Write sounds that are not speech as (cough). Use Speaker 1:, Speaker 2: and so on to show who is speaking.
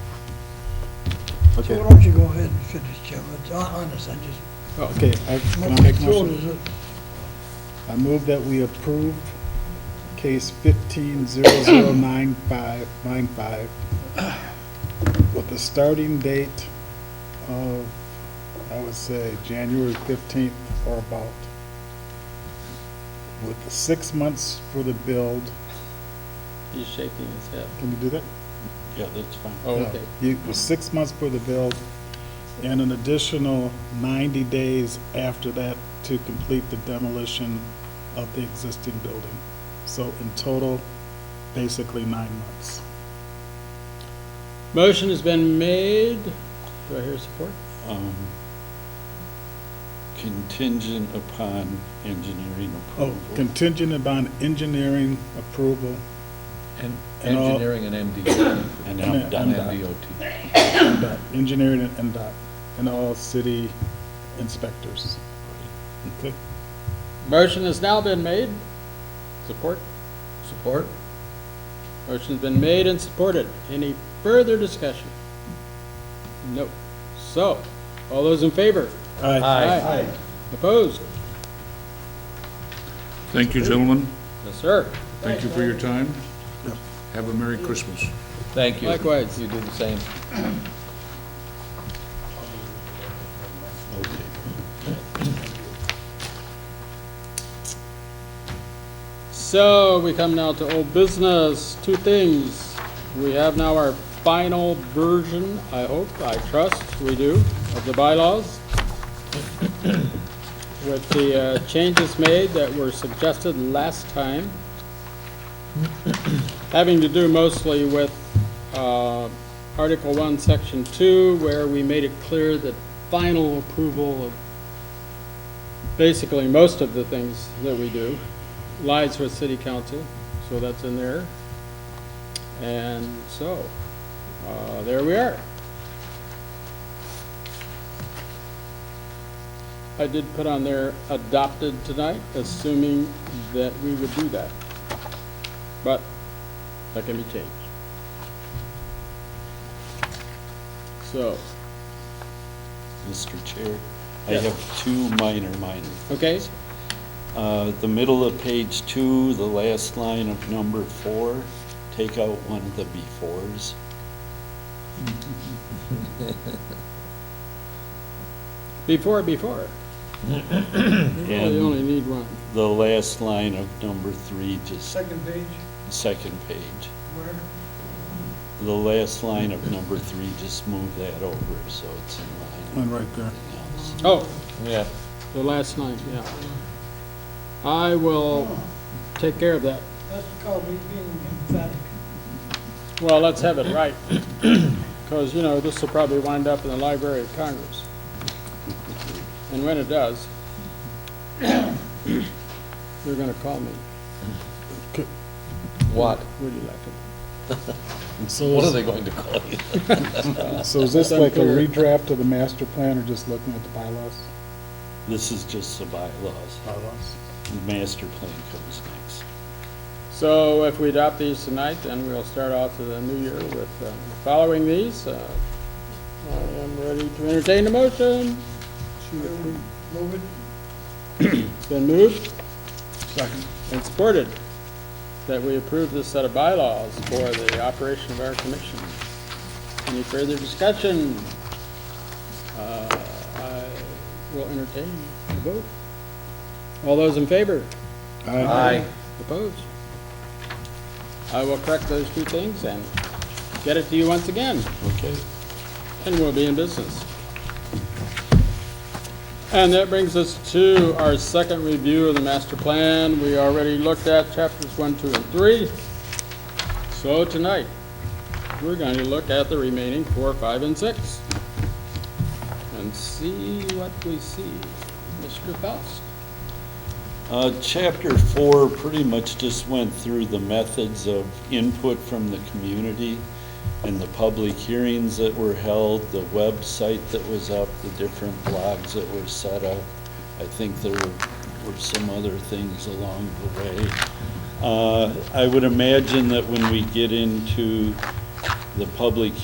Speaker 1: So
Speaker 2: Okay,
Speaker 1: why don't you go ahead and finish, Jim? It's hon- honest, I just,
Speaker 2: okay, I- can
Speaker 1: my
Speaker 2: I make a
Speaker 1: throat
Speaker 2: motion?
Speaker 1: is,
Speaker 2: I move that we approve case fifteen zero zero nine five, nine five with the starting date of, I would say, January fifteenth or about. With the six months for the build,
Speaker 3: He's shaking his head.
Speaker 2: can you do that?
Speaker 3: Yeah, that's fine. Oh,
Speaker 2: Yeah.
Speaker 3: okay.
Speaker 2: You- It was six months for the build and an additional ninety days after that to complete the demolition of the existing building. So in total, basically nine months.
Speaker 3: Motion has been made. Do I hear support?
Speaker 4: um, contingent upon engineering
Speaker 2: Oh,
Speaker 4: approval.
Speaker 2: contingent upon engineering approval.
Speaker 5: And
Speaker 2: And all-
Speaker 5: engineering and MDOT,
Speaker 4: And
Speaker 2: Yeah,
Speaker 4: I'm
Speaker 5: and
Speaker 4: done.
Speaker 2: I'm-
Speaker 5: MDOT.
Speaker 2: NDOT, (clears throat) engineering and NDOT, and all city inspectors. Okay?
Speaker 3: Motion has now been made. Support?
Speaker 5: Support?
Speaker 3: Motion's been made and supported. Any further discussion? No. So, all those in favor?
Speaker 2: All right.
Speaker 3: Aye. Opposed?
Speaker 6: Thank you, gentlemen.
Speaker 3: Yes, sir.
Speaker 6: Thank you for your time. Have a Merry Christmas.
Speaker 5: Thank you.
Speaker 3: Likewise.
Speaker 5: You do the same.
Speaker 3: So we come now to old business, two things. We have now our final version, I hope, I trust we do, of the bylaws (coughs) with the uh, changes made that were suggested last time, (coughs) having to do mostly with uh, Article 1, Section 2, where we made it clear that final approval of basically most of the things that we do lies with city council, so that's in there. And so, uh, there we are. I did put on there adopted tonight, assuming that we would do that. But that can be changed. So,
Speaker 4: Mr. Chair, I have two minor, minor.
Speaker 3: okay,
Speaker 4: Uh, The middle of page two, the last line of number four, take out one of the befores.
Speaker 3: before, before. Oh, You really
Speaker 4: And-
Speaker 3: only need one.
Speaker 4: The last line of number three, just
Speaker 1: second page,
Speaker 4: second page.
Speaker 1: where?
Speaker 4: The last line of number three, just move that over, so it's in
Speaker 2: One
Speaker 4: line
Speaker 2: right there.
Speaker 4: with everything
Speaker 3: Oh,
Speaker 4: else.
Speaker 5: Yeah.
Speaker 3: The last night, yeah. I will take care of that.
Speaker 1: That's called me being emphatic.
Speaker 3: Well, let's have it (clears throat) right, because, you know, this will probably wind up in the Library of Congress. And when it does, (coughs) you're gonna call me,
Speaker 5: What?
Speaker 3: would you like it?
Speaker 2: So
Speaker 5: What are
Speaker 2: is,
Speaker 5: they going to call you?
Speaker 2: so is this like a
Speaker 3: Unclear.
Speaker 2: redraft of the master plan or just looking at the bylaws?
Speaker 4: This is just the bylaws.
Speaker 2: Bylaws.
Speaker 4: The master plan comes next.
Speaker 3: So if we adopt these tonight, then we'll start off to the new year with um, following these. Uh, I am ready to entertain a motion.
Speaker 1: Move it.
Speaker 3: It's been moved. And supported that we approve this set of bylaws for the operation of our commission. Any further discussion? Uh, I will entertain a vote. All those in favor?
Speaker 5: Aye.
Speaker 3: Opposed? I will correct those two things and get it to you once again,
Speaker 4: Okay.
Speaker 3: and we'll be in business. And that brings us to our second review of the master plan. We already looked at chapters one, two, and three. So tonight, we're going to look at the remaining four, five, and six and see what we see. Mr. Faust?
Speaker 4: Uh, Chapter four pretty much just went through the methods of input from the community and the public hearings that were held, the website that was up, the different blogs that were set up. I think there were- were some other things along the way. Uh, I would imagine that when we get into the public